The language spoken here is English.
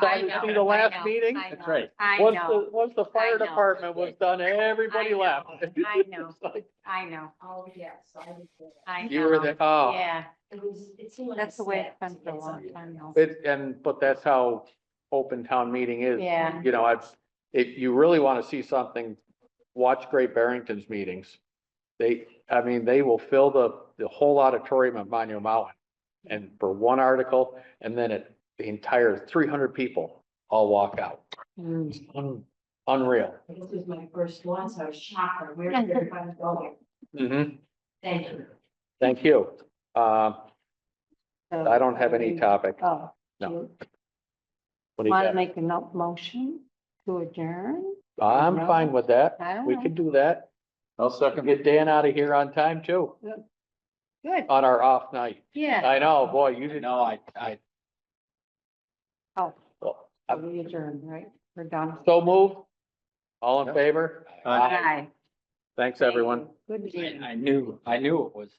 I decided know, through the I last know, meeting. I That's know, right. I Once know, the, once the fire know. department was done, everybody I know, left. I know. It's like, I know, Oh, yes, I was there. I know. You were the, oh, Yeah, It was, it seemed like. that's the way it's been step. for a It's long like- time now. it, and, but that's how open town meeting is. Yeah, You know, I've, if you really want to see something, watch Great Barrington's meetings. They, I mean, they will fill the, the whole auditorium of Monument Mountain. And for one article, and then it, the entire three hundred people all walk out. Mm. Un- Unreal. This was my first one, so I was shocked, where did everybody go? Mm-hmm. Thank you. Thank you. Uh, I don't have any topic. oh, No. you What do you want to got? make a no- motion to adjourn? I'm fine with that. I don't We know, can do that. I'll Can second. Get Dan out of here on time too, good, on our off night. yeah, I know, boy, you didn't. No, I, I, oh, Well, so we adjourn, right, we're done. So move. All in favor? I, Aye. Thanks, everyone. Good meeting. I knew, I knew it was.